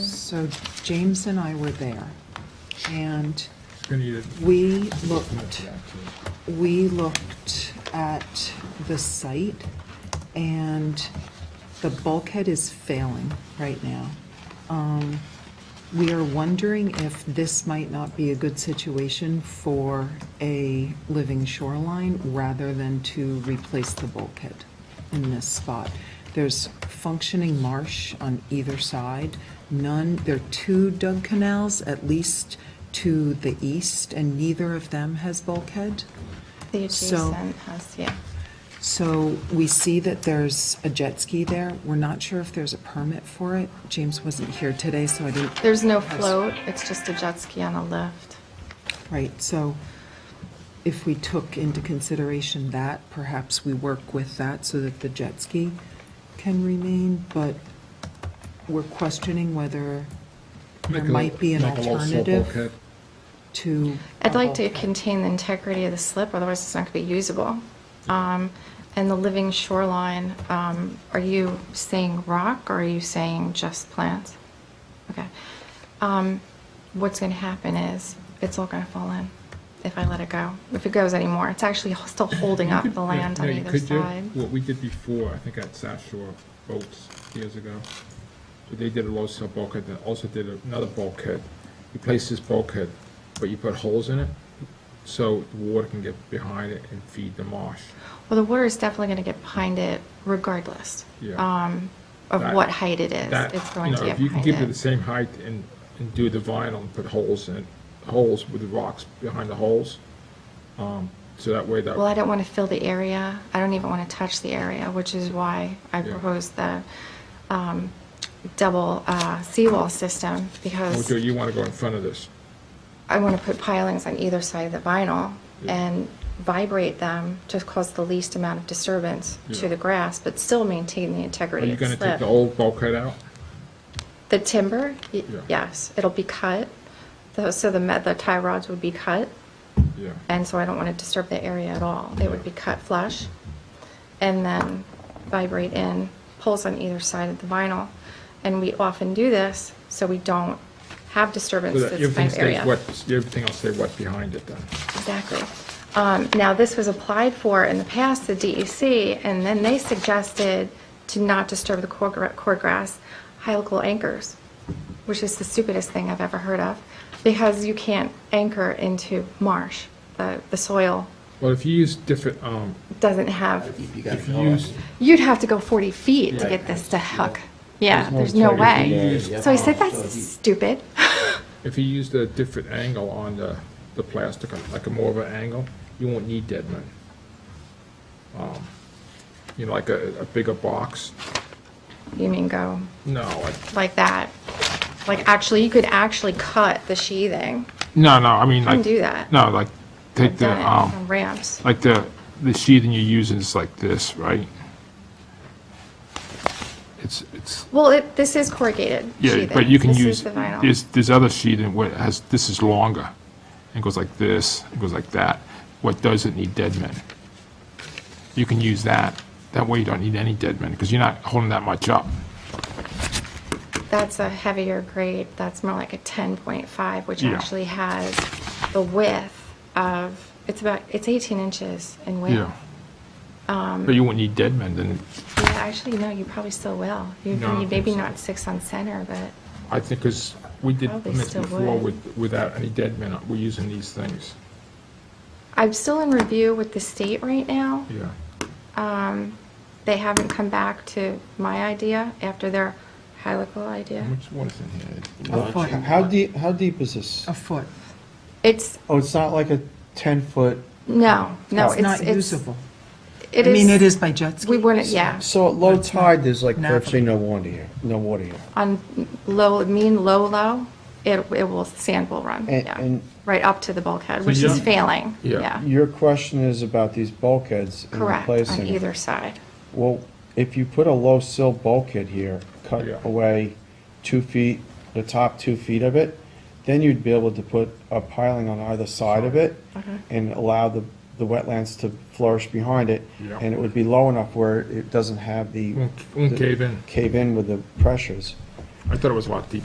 So James and I were there, and Gonna need it. we looked, we looked at the site, and the bulkhead is failing right now. Um, We are wondering if this might not be a good situation for a living shoreline rather than to replace the bulkhead in this spot. There's functioning marsh on either side, none, there are two dug canals at least to the east, and neither of them has bulkhead. The So- adjacent house, yeah. So we see that there's a jet ski there. We're not sure if there's a permit for it. James wasn't here today, so I didn't. There's no Yes. float, it's just a jet ski on a lift. Right, so if we took into consideration that, perhaps we work with that so that the jet ski can remain, but we're questioning whether there Make a- might be an make a little slope alternative bulkhead. to. I'd a like to Oh, bulkhead. contain the integrity of the slip, otherwise it's not going to be usable. Um, And the living shoreline, um, are you saying rock or are you saying just plants? Okay. Um, What's going to happen is, it's all going to fall in if I let it go, if it goes anymore. It's actually still holding You up could- the yeah, land on yeah, you either could do side. What we did before, I think at South Shore Boats years ago, so they did a low sill bulkhead, then also did another bulkhead. You place this bulkhead, but you put holes in it, so the water can get behind it and feed the marsh. Well, the water is definitely going to get behind it regardless Yeah. um, of That- what height it is. That, It's you going to know, get if you can keep it the behind it. same height and, and do the vinyl and put holes in, holes with the rocks behind the holes, um, so that way that. Well, I don't want to fill the area. I don't even want to touch the area, which is why I Yeah. proposed the um, double uh, seawall system because Mojo, you wanna go in front of this. I want to put pilings on either side of the vinyl Yeah. and vibrate them to cause the least amount of disturbance to Yeah. the grass, but still maintain the Are integrity you of the gonna take slip. the old bulkhead out? The timber, y- Yeah. yes, it'll be cut, Tho- so the, met- the tie rods would be cut, Yeah. and so I don't want to disturb the area at all. They would be cut flush, and then vibrate in, pulls on either side of the vinyl. And we often do this, so we don't have disturbance So that to this everything kind of stays wet, area. everything will stay wet behind it then. Exactly. Um, Now, this was applied for in the past, the DEC, and then they suggested to not disturb the cord gra- cord grass, helical anchors, which is the stupidest thing I've ever heard of, because you can't anchor into marsh. The the soil Well, if you use different, um, doesn't have, if you use, you'd have to go 40 feet to Yeah. get this to hook. Yeah, There's there's no no alternative. way. Yeah, yeah. So I said, that's stupid. if you used a different angle on the, the plastic, like a more of an angle, you won't need dead men. Um, You know, like a, a bigger box, You mean go no, I- like that? Like, actually, you could actually cut the sheathing. no, no, I mean Can like. do that. No, like, take the, done it um, on ramps. like the, the sheathing you use is like this, right? It's, it's, Well, it, this is corrugated Yeah, sheathing. but you can This is use, the vinyl. there's, there's other sheeting where it has, this is longer. It goes like this, it goes like that. What doesn't need dead men? You can use that. That way you don't need any dead men, because you're not holding that much up. That's a heavier grade. That's more like a 10.5, which Yeah. actually has the width of, it's about, it's 18 inches in width. Yeah. Um, But you won't need dead men, then Yeah, actually, no, you probably still will. You No, I don't you- maybe think so. not six on center, but I think, because we did Probably permits still before would. with, without any dead men, uh, we're using these things. I'm still in review with the state right now. Um, Yeah. They haven't come back to my idea after their helical idea. Which, what is in here? A foot, How deep, how deep is this? Oh. a foot. It's, Oh, it's not like a 10-foot, no, no, it's, It's not it's- usable. I It is. mean, it is by jet ski. We wouldn't, yeah. so at low tide, there's like Navigable. virtually no water here, no water here. on low, mean low, low, it, it will, sand will run, And- yeah. and- Right up to the bulkhead, which is you're- failing, Yeah. yeah. Your question is about these bulkheads and Correct, on replacing them. either side. Well, if you put a low sill bulkhead here, cut Yeah. away two feet, the top two feet of it, then you'd be able to put a piling on either side of it Mm-hmm. and allow the, the wetlands to flourish behind it. Yeah. And it would be low enough where it doesn't have the Won't- won't cave in. cave in with the pressures. I thought it was a lot deeper.